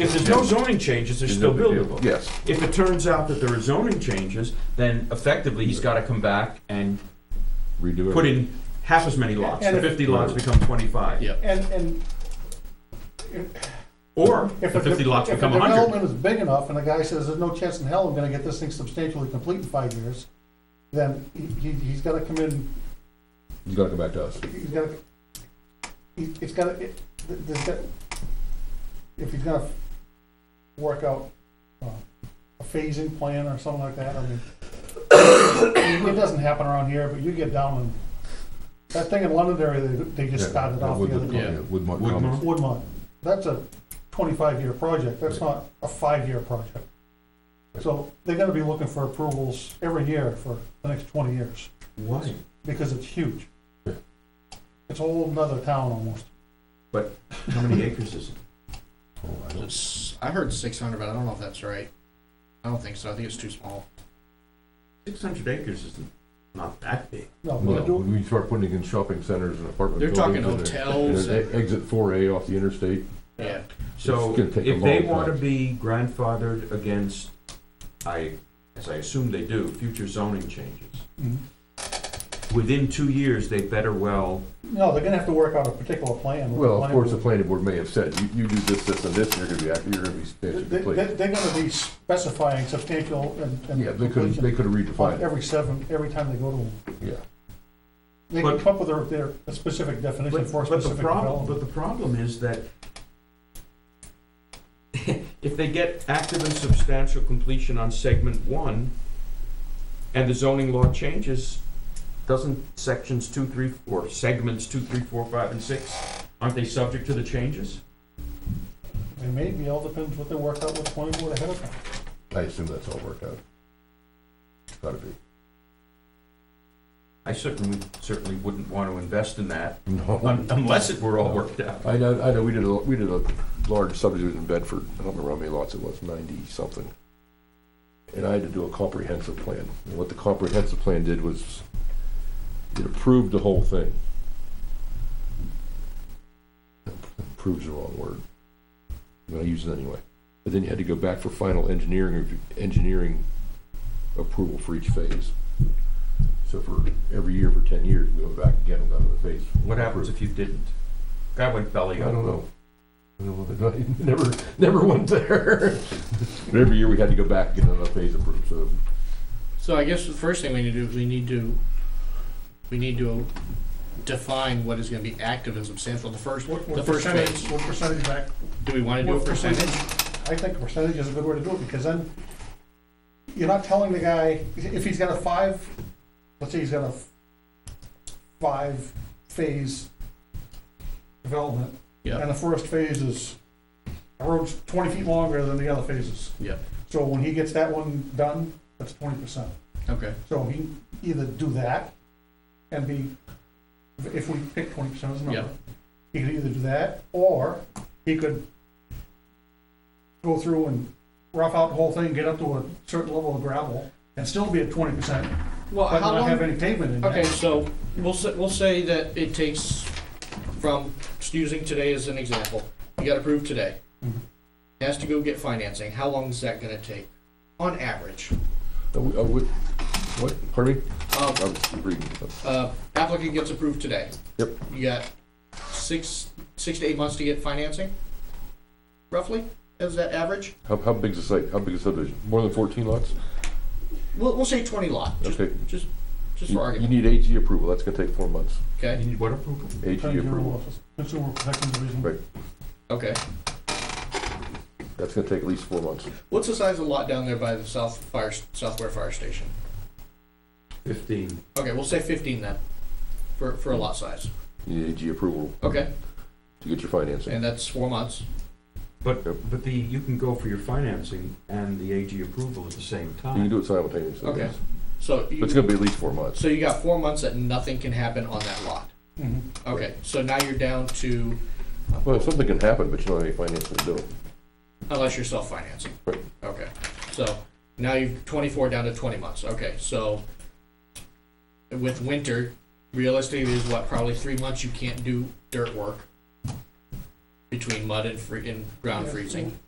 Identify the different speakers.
Speaker 1: If there's no zoning changes, they're still buildable.
Speaker 2: Yes.
Speaker 1: If it turns out that there are zoning changes, then effectively, he's gotta come back and
Speaker 2: Redo
Speaker 1: put
Speaker 2: it.
Speaker 1: in half as many lots. The
Speaker 3: And if-
Speaker 1: fifty lots become twenty-five.
Speaker 4: Yeah.
Speaker 3: And, and
Speaker 1: Or the
Speaker 3: if a,
Speaker 1: fifty lots
Speaker 3: de- if a
Speaker 1: become hundred.
Speaker 3: development is big enough and the guy says, there's no chance in hell I'm gonna get this thing substantially complete in five years, then he- he, he's gotta come in,
Speaker 2: You gotta come back to us.
Speaker 3: he's gotta, he- it's gotta, it, th- there's got, if he's gonna work out uh, a phasing plan or something like that, I mean, it doesn't happen around here, but you get down and, that thing in Londonderry, they, they just started
Speaker 2: Yeah,
Speaker 3: off
Speaker 2: with
Speaker 3: the other
Speaker 2: the-
Speaker 3: day.
Speaker 4: Yeah.
Speaker 2: With
Speaker 1: Woodmont.
Speaker 2: Montgomery.
Speaker 3: Woodmont, that's a twenty-five year project, that's not a five-year project. So they're gonna be looking for approvals every year for the next twenty years,
Speaker 1: Why?
Speaker 3: because it's huge.
Speaker 2: Yeah.
Speaker 3: It's a whole nother town almost.
Speaker 1: How many acres is it?
Speaker 2: Oh, I don't-
Speaker 4: It's- I heard six hundred, but I don't know if that's right. I don't think so. I think it's too small.
Speaker 1: Six hundred acres is not that big.
Speaker 3: No,
Speaker 2: Well,
Speaker 3: they're doing,
Speaker 2: when you start putting in shopping centers and apartment
Speaker 4: They're
Speaker 2: buildings.
Speaker 4: talking
Speaker 2: and they're- and
Speaker 4: hotels.
Speaker 2: they're
Speaker 4: and-
Speaker 2: Exit four A off the interstate.
Speaker 4: Yeah.
Speaker 1: So
Speaker 2: It's gonna take a
Speaker 1: if they
Speaker 2: long
Speaker 1: want to
Speaker 2: time.
Speaker 1: be grandfathered against, I, as I assume they do, future zoning changes,
Speaker 3: Mhm.
Speaker 1: within two years, they better well,
Speaker 3: no, they're gonna have to work out a particular plan. with the
Speaker 2: Well, of
Speaker 3: planning
Speaker 2: course, the
Speaker 3: board.
Speaker 2: planning board may have said, you, you do this, this, and this, and you're gonna be, act- you're gonna be substantially
Speaker 3: They,
Speaker 2: complete.
Speaker 3: they- they're gonna be specifying substantial and,
Speaker 2: Yeah,
Speaker 3: and
Speaker 2: they could, they
Speaker 3: completion
Speaker 2: could have
Speaker 3: on
Speaker 2: redefined it,
Speaker 3: every seven, every time they go to them.
Speaker 2: yeah.
Speaker 3: They
Speaker 1: But-
Speaker 3: can come up with their, their a specific definition
Speaker 1: but,
Speaker 3: for a
Speaker 1: but the
Speaker 3: specific
Speaker 1: problem,
Speaker 3: development.
Speaker 1: but the problem is that if they get active and substantial completion on segment one, and the zoning law changes, doesn't sections two, three, or segments two, three, four, five, and six, aren't they subject to the changes?
Speaker 3: They may be, all depends what they work out with the planning board ahead of time.
Speaker 2: I assume that's all worked out. Gotta be.
Speaker 1: I certainly, certainly wouldn't want to invest in that
Speaker 2: No.
Speaker 3: Oh,
Speaker 1: un- unless it were all worked out.
Speaker 2: I know, I know, we did a, we did a large subdivision in Bedford, I don't remember how many lots it was, ninety-something. And I had to do a comprehensive plan, and what the comprehensive plan did was, it approved the whole thing. Approves the wrong word, but I use it anyway. But then you had to go back for final engineering, review- engineering approval for each phase. So for every year for ten years, we went back again and got another phase.
Speaker 1: What happens if you didn't? Guy went belly
Speaker 2: I
Speaker 1: up.
Speaker 2: don't know. I don't know, what they- I never, never went there. But every year we had to go back and get another phase approved, so.
Speaker 4: So I guess the first thing we need to do is we need to we need to define what is going to be active and substantial. The first
Speaker 3: What-
Speaker 4: the
Speaker 3: what
Speaker 4: first
Speaker 3: percentage-
Speaker 4: phase.
Speaker 3: What percentage back?
Speaker 4: Do we want to do a
Speaker 3: what
Speaker 4: percentage?
Speaker 3: I think a percentage is a good way to do it, because then you're not telling the guy, if he's got a five, let's say he's got a five-phase development,
Speaker 4: Yeah.
Speaker 3: and the first phase is, a road's twenty feet longer than the other phases.
Speaker 4: Yeah.
Speaker 3: So when he gets that one done, that's twenty percent.
Speaker 4: Okay.
Speaker 3: So he either do that and be, if we pick twenty percent as a
Speaker 4: Yeah.
Speaker 3: number, he could either do that, or he could go through and rough out the whole thing, get up to a certain level of gravel, and still be at twenty percent,
Speaker 4: Well,
Speaker 3: but
Speaker 4: how
Speaker 3: not
Speaker 4: long?
Speaker 3: have any pavement in
Speaker 4: Okay,
Speaker 3: there.
Speaker 4: so we'll say, we'll say that it takes from just using today as an example. You got approved today.
Speaker 3: Mhm.
Speaker 4: Has to go get financing. How long is that going to take, on average?
Speaker 2: uh, we- uh, we- What, pardon me?
Speaker 4: Um,
Speaker 2: I was reading something.
Speaker 4: uh, applicant gets approved today.
Speaker 2: Yep.
Speaker 4: You got six, six to eight months to get financing, roughly, is that average?
Speaker 2: How, how big's the site? How big is the subdivision? More than fourteen lots?
Speaker 4: We'll, we'll say twenty lot, just,
Speaker 2: Okay.
Speaker 4: just, just
Speaker 2: You you
Speaker 4: for argument,
Speaker 2: need AG approval, that's gonna take four months.
Speaker 1: You
Speaker 4: okay,
Speaker 1: need what approval?
Speaker 2: AG
Speaker 3: Attorney General
Speaker 2: approval,
Speaker 3: Office, Consumer Protection Division,
Speaker 2: Right.
Speaker 4: okay.
Speaker 2: that's gonna take at least four months.
Speaker 4: What's the size of the lot down there by the south fire, southware fire station?
Speaker 1: Fifteen.
Speaker 4: Okay, we'll say fifteen then, for, for a lot size,
Speaker 2: You need AG approval
Speaker 4: okay,
Speaker 2: to get your financing.
Speaker 4: and that's four months,
Speaker 1: But, uh,
Speaker 2: Yep.
Speaker 1: but the, you can go for your financing and the AG approval at the same
Speaker 2: You can
Speaker 1: time.
Speaker 2: do it simultaneously.
Speaker 4: Okay.
Speaker 2: yes.
Speaker 4: so
Speaker 2: But it's
Speaker 4: you,
Speaker 2: gonna be at least four months.
Speaker 4: so you got four months that nothing can happen on that lot.
Speaker 3: Mhm.
Speaker 4: Okay, so now you're down to,
Speaker 2: Well, something can happen, but you don't have any financing to do it.
Speaker 4: Unless you're self-financing.
Speaker 2: Right.
Speaker 4: Okay, so now you've twenty-four down to twenty months, okay, so with winter, realistically, there's what, probably three months you can't do dirt work between mud and free, and ground
Speaker 3: Yeah.
Speaker 4: freezing.